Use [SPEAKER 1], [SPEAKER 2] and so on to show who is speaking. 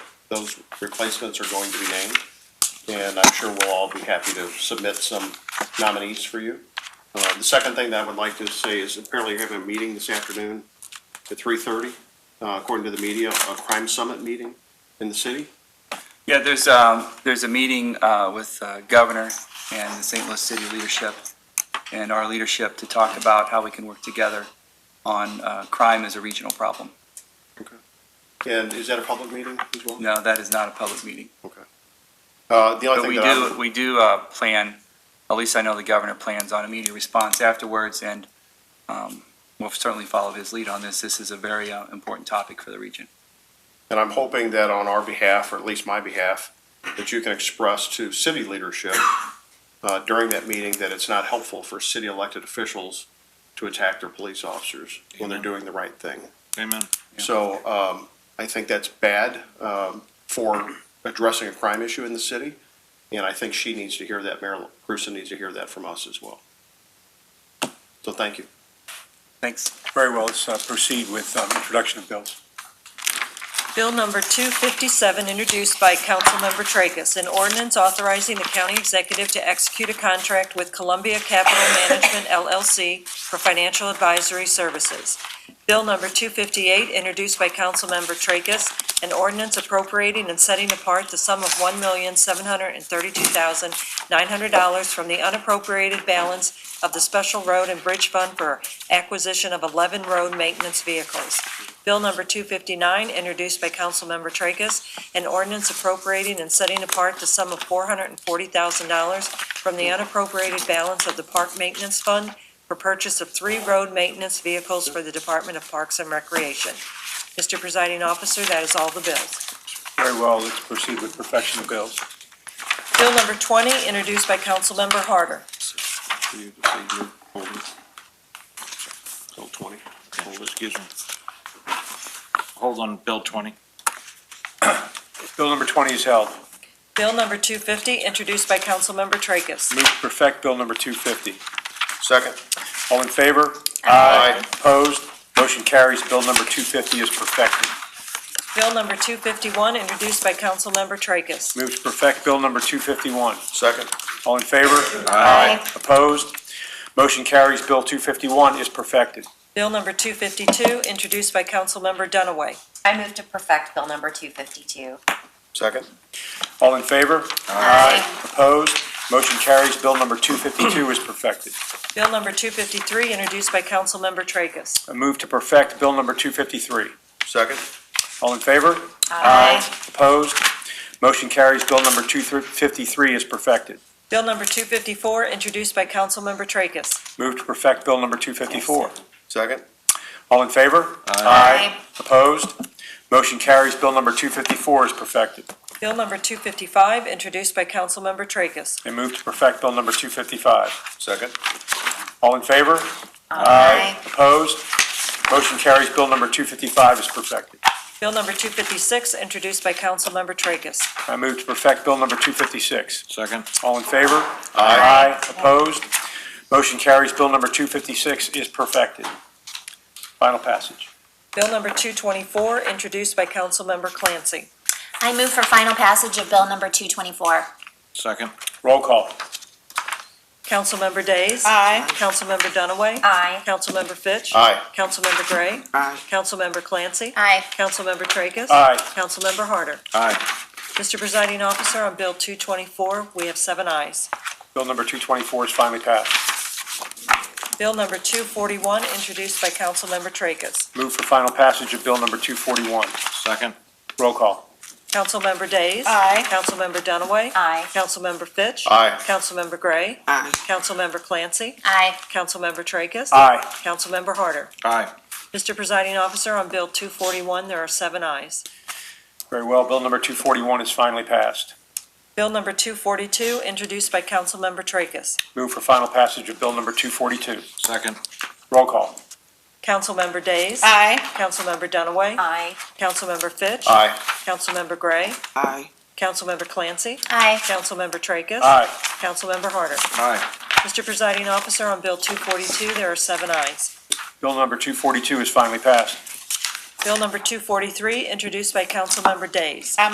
[SPEAKER 1] those replacements are going to be named. And I'm sure we'll all be happy to submit some nominees for you. Uh, the second thing that I would like to say is apparently you're having a meeting this afternoon at three thirty, uh, according to the media, a crime summit meeting in the city.
[SPEAKER 2] Yeah, there's, um, there's a meeting, uh, with uh, Governor and the St. Louis City leadership and our leadership to talk about how we can work together on, uh, crime as a regional problem.
[SPEAKER 1] And is that a public meeting as well?
[SPEAKER 2] No, that is not a public meeting.
[SPEAKER 1] Uh, the only
[SPEAKER 2] But
[SPEAKER 1] thing
[SPEAKER 2] we
[SPEAKER 1] that I,
[SPEAKER 2] do, we do, uh, plan, at least I know the governor plans on a media response afterwards and, um, we'll certainly follow his lead on this. This is a very, uh, important topic for the region.
[SPEAKER 1] and I'm hoping that on our behalf, or at least my behalf, that you can express to city leadership, uh, during that meeting that it's not helpful for city elected officials to attack their police officers when they're doing the right thing.
[SPEAKER 3] Amen.
[SPEAKER 2] Yeah.
[SPEAKER 1] So um, I think that's bad um, for addressing a crime issue in the city, and I think she needs to hear that, Mayor Grusin needs to hear that from us as well. So thank you.
[SPEAKER 2] Thanks.
[SPEAKER 3] Very well, let's uh, proceed with um, introduction of bills.
[SPEAKER 4] Bill number 257, introduced by Councilmember Tracus, an ordinance authorizing the county executive to execute a contract with Columbia Capital Management LLC for financial advisory services. Bill number 258, introduced by Councilmember Tracus, an ordinance appropriating and setting apart the sum of $1,732,900 from the unappropriated balance of the Special Road and Bridge Fund for acquisition of 11 road maintenance vehicles. Bill number 259, introduced by Councilmember Tracus, an ordinance appropriating and setting apart the sum of $440,000 from the unappropriated balance of the Park Maintenance Fund for purchase of three road maintenance vehicles for the Department of Parks and Recreation. Mr. Presiding Officer, that is all the bills.
[SPEAKER 3] Very well, let's proceed with perfection of bills.
[SPEAKER 4] Bill number 20, introduced by Councilmember Harder.
[SPEAKER 1] You can say your folder. Bill 20, folder.
[SPEAKER 5] Excuse me. Hold on, Bill 20.
[SPEAKER 3] Bill number 20 is held.
[SPEAKER 4] Bill number 250, introduced by Councilmember Tracus.
[SPEAKER 3] Move to perfect Bill number 250.
[SPEAKER 1] Second.
[SPEAKER 3] All in favor?
[SPEAKER 1] Aye.
[SPEAKER 3] Opposed? Motion carries. Bill number 250 is perfected.
[SPEAKER 4] Bill number 251, introduced by Councilmember Tracus.
[SPEAKER 3] Move to perfect Bill number 251.
[SPEAKER 1] Second.
[SPEAKER 3] All in favor?
[SPEAKER 4] Aye.
[SPEAKER 3] Opposed? Motion carries. Bill 251 is perfected.
[SPEAKER 4] Bill number 252, introduced by Councilmember Dunaway.
[SPEAKER 6] I move to perfect Bill number 252.
[SPEAKER 1] Second.
[SPEAKER 3] All in favor? Aye. Opposed? Motion carries. Bill number 252 is perfected.
[SPEAKER 4] Bill number 253, introduced by Councilmember Tracus.
[SPEAKER 3] A move to perfect Bill number 253.
[SPEAKER 1] Second.
[SPEAKER 3] All in favor?
[SPEAKER 6] Aye.
[SPEAKER 3] Opposed? Motion carries. Bill number 253 is perfected.
[SPEAKER 4] Bill number 254, introduced by Councilmember Tracus.
[SPEAKER 3] Move to perfect Bill number 254.
[SPEAKER 1] Second.
[SPEAKER 3] All in favor? Aye. Opposed? Motion carries. Bill number 254 is perfected.
[SPEAKER 4] Bill number 255, introduced by Councilmember Tracus.
[SPEAKER 3] And move to perfect Bill number 255.
[SPEAKER 1] Second.
[SPEAKER 3] All in favor?
[SPEAKER 6] Aye.
[SPEAKER 3] Opposed? Motion carries. Bill number 255 is perfected.
[SPEAKER 4] Bill number 256, introduced by Councilmember Tracus.
[SPEAKER 3] I move to perfect Bill number 256.
[SPEAKER 5] Second.
[SPEAKER 3] All in favor? Opposed? Motion carries. Bill number 256 is perfected. Final passage.
[SPEAKER 4] Bill number 224, introduced by Councilmember Clancy.
[SPEAKER 7] I move for final passage of bill number 224.
[SPEAKER 5] Second.
[SPEAKER 3] Roll call.
[SPEAKER 4] Councilmember Days.
[SPEAKER 6] Aye.
[SPEAKER 4] Councilmember Dunaway.
[SPEAKER 7] Aye.
[SPEAKER 4] Councilmember Fitch.
[SPEAKER 1] Aye.
[SPEAKER 4] Councilmember Gray. Aye. Councilmember Clancy.
[SPEAKER 7] Aye.
[SPEAKER 4] Councilmember Tracus.
[SPEAKER 3] Aye.
[SPEAKER 4] Councilmember Harder.
[SPEAKER 5] Aye.
[SPEAKER 4] Mr. Presiding Officer, on Bill 224, we have seven ayes.
[SPEAKER 3] Bill number 224 is finally passed.
[SPEAKER 4] Bill number 241, introduced by Councilmember Tracus.
[SPEAKER 3] Move for final passage of Bill number 241.
[SPEAKER 5] Second.
[SPEAKER 3] Roll call.
[SPEAKER 4] Councilmember Days.
[SPEAKER 6] Aye.
[SPEAKER 4] Councilmember Dunaway.
[SPEAKER 7] Aye.
[SPEAKER 4] Councilmember Fitch.
[SPEAKER 1] Aye.
[SPEAKER 4] Councilmember Gray. Aye. Councilmember Clancy.
[SPEAKER 7] Aye.
[SPEAKER 4] Councilmember Tracus.
[SPEAKER 3] Aye.
[SPEAKER 4] Councilmember Harder.
[SPEAKER 5] Aye.
[SPEAKER 4] Mr. Presiding Officer, on Bill 241, there are seven ayes.
[SPEAKER 3] Very well. Bill number 241 is finally passed.
[SPEAKER 4] Bill number 242, introduced by Councilmember Tracus.
[SPEAKER 3] Move for final passage of Bill number 242.
[SPEAKER 5] Second.
[SPEAKER 3] Roll call.
[SPEAKER 4] Councilmember Days.
[SPEAKER 6] Aye.
[SPEAKER 4] Councilmember Dunaway.
[SPEAKER 7] Aye.
[SPEAKER 4] Councilmember Fitch.
[SPEAKER 1] Aye.
[SPEAKER 4] Councilmember Gray.
[SPEAKER 8] Aye.
[SPEAKER 4] Councilmember Clancy.
[SPEAKER 7] Aye.
[SPEAKER 4] Councilmember Tracus.
[SPEAKER 3] Aye.
[SPEAKER 4] Councilmember Harder.
[SPEAKER 5] Aye.
[SPEAKER 4] Mr. Presiding Officer, on Bill 242, there are seven ayes.
[SPEAKER 3] Bill number 242 is finally passed.
[SPEAKER 4] Bill number 243, introduced by Councilmember Days.